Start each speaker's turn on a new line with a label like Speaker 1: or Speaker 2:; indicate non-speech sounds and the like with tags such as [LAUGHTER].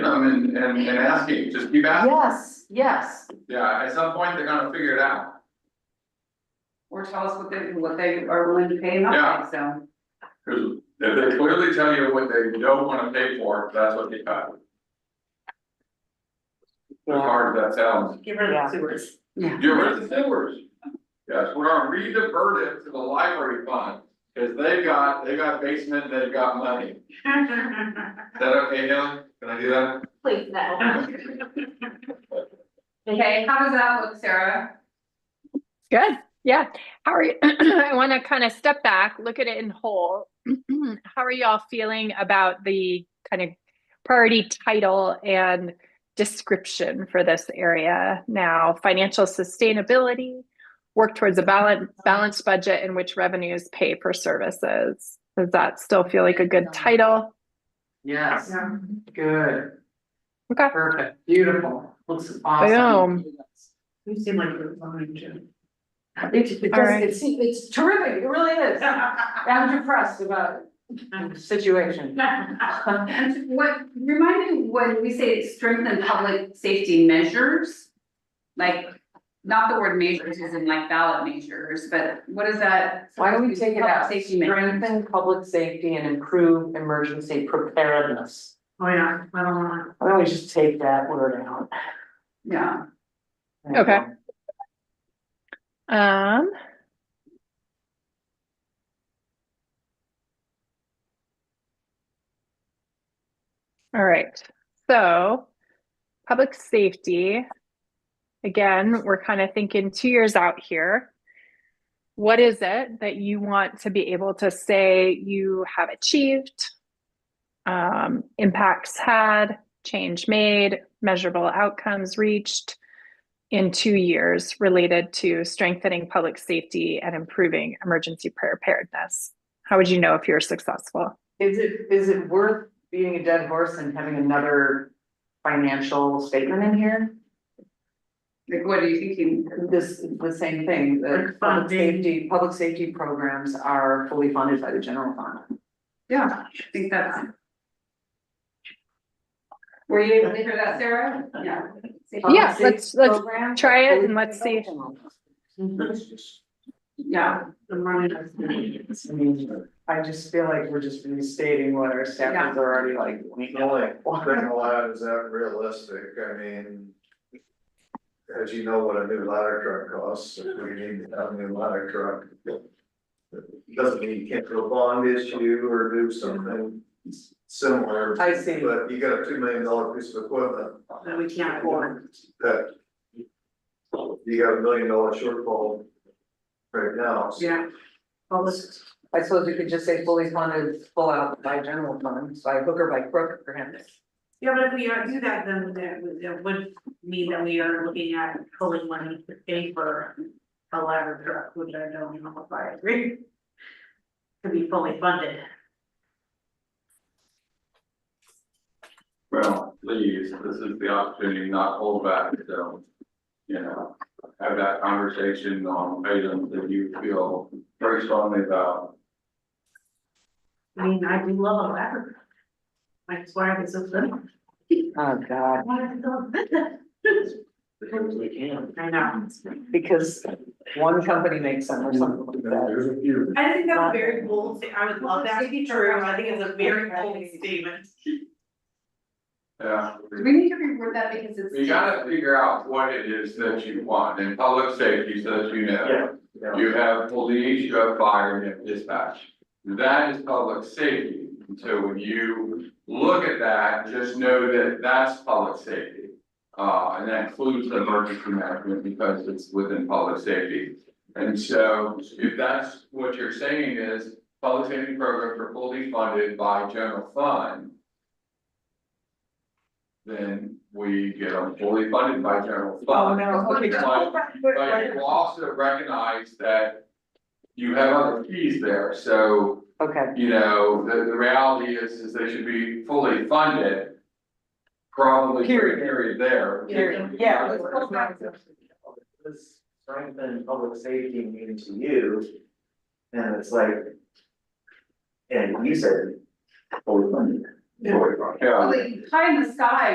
Speaker 1: and, and, and asking, just keep asking.
Speaker 2: Yes, yes,
Speaker 1: Yeah, at some point, they're gonna figure it out.
Speaker 3: Or tell us what they, what they are willing to pay and
Speaker 1: Yeah.
Speaker 3: not pay, so.
Speaker 1: Cause if they clearly tell you what they don't wanna pay for, that's what they cut. As hard as that sounds.
Speaker 3: Give her
Speaker 2: Yeah.
Speaker 3: the sewers. [LAUGHS]
Speaker 1: Get rid of the sewers. Yes, we're gonna redivert it to the library fund, cause they've got, they've got basement, and they've got money. Is that okay, Helen? Can I do that?
Speaker 4: Please, no.
Speaker 3: Okay, how does that look, Sarah?
Speaker 5: Good, yeah. How are you? [CLEARS THROAT] I want to kind of step back, look at it in whole. [CLEARS THROAT] How are y'all feeling about the kind of priority title and description for this area now? Financial sustainability, work towards a balanced balanced budget in which revenues pay for services. Does that still feel like a good title?
Speaker 6: Yes,
Speaker 3: Yeah.
Speaker 6: good,
Speaker 5: Okay.
Speaker 6: perfect, beautiful, looks awesome.
Speaker 5: Boom.
Speaker 3: You seem like you're fine, too.
Speaker 2: it, it
Speaker 5: All right.
Speaker 2: does, it's, it's terrific, it really is, I'm depressed about the
Speaker 3: [LAUGHS]
Speaker 2: situation.
Speaker 3: What, remind me, when we say strengthen public safety measures? Like, not the word measures as in like ballot measures, but what is that?
Speaker 2: Why don't we take it out,
Speaker 3: Public safety measures.
Speaker 2: strengthen public safety and improve emergency preparedness?
Speaker 3: Oh, yeah, I don't know.
Speaker 2: Why don't we just take that word out?
Speaker 3: Yeah,
Speaker 5: Okay. Um. All right, so public safety. Again, we're kind of thinking two years out here. What is it that you want to be able to say you have achieved? Um, impacts had, change made, measurable outcomes reached in two years related to strengthening public safety and improving emergency preparedness? How would you know if you're successful?
Speaker 2: Is it, is it worth beating a dead horse and having another financial statement in here?
Speaker 3: like, what are you thinking?
Speaker 2: This, the same thing, that
Speaker 3: Like
Speaker 2: public
Speaker 3: funding.
Speaker 2: safety, public safety programs are fully funded by the general fund.
Speaker 3: Yeah, I think that's. Were you able to hear that, Sarah? Yeah.
Speaker 5: Yeah, let's- let's try it and let's see.
Speaker 3: Yeah.
Speaker 2: I mean, I just feel like we're just restating what our staffers are already like, we know it.
Speaker 7: thing allowed, is that realistic, I mean. As you know what a new ladder truck costs, if we need a new ladder truck. Doesn't mean you can't do a bond issue or do something similar.
Speaker 2: I see.
Speaker 7: But you got a two million dollar piece of equipment
Speaker 3: That we can't
Speaker 7: afford. that. You got a million dollar shortfall right now, so
Speaker 3: Yeah.
Speaker 2: Well, this- I suppose you could just say fully funded, full out by general funds, by hook or by crook, perhaps.
Speaker 8: Yeah, but if we are do that, then that would, that would mean that we are looking at pulling money to pay for a ladder truck, which I don't know if I agree. To be fully funded.
Speaker 1: Well, please, this is the opportunity to not hold back, so. You know, have that conversation on items that you feel very strongly about.
Speaker 8: I mean, I do love a ladder truck. Like, it's why I get so little.
Speaker 2: Oh, God,
Speaker 8: Why is it so
Speaker 7: because we can.
Speaker 8: I know.
Speaker 2: because one company makes them or something like that.
Speaker 7: There's a few.
Speaker 8: I think that's a very bold, sta- I would love that to be true. I think it's a very bold statement.
Speaker 1: Yeah.
Speaker 3: Do we need to reword that because it's.
Speaker 1: You gotta figure out what it is that you want in public safety, so that you know.
Speaker 7: Yeah.
Speaker 1: You have police, you have fire, you have dispatch. That is public safety. And So when you look at that, just know that that's public safety. Uh, and that includes the emergency management because it's within public safety. And so if that's what you're saying is public safety programs are fully funded by general fund. Then we get them fully funded by general fund.
Speaker 2: Oh, no, okay.
Speaker 1: But- but you also recognize that you have other fees there, so,
Speaker 2: Okay,
Speaker 1: you know, the, the reality is, is they should be fully funded. Probably for a
Speaker 2: Period.
Speaker 1: period there.
Speaker 2: Period. Yeah, let's go back to-
Speaker 9: This strengthen public safety means to you, and it's like. And you said, fully funded.
Speaker 1: Yeah.
Speaker 3: Well, the pie in the sky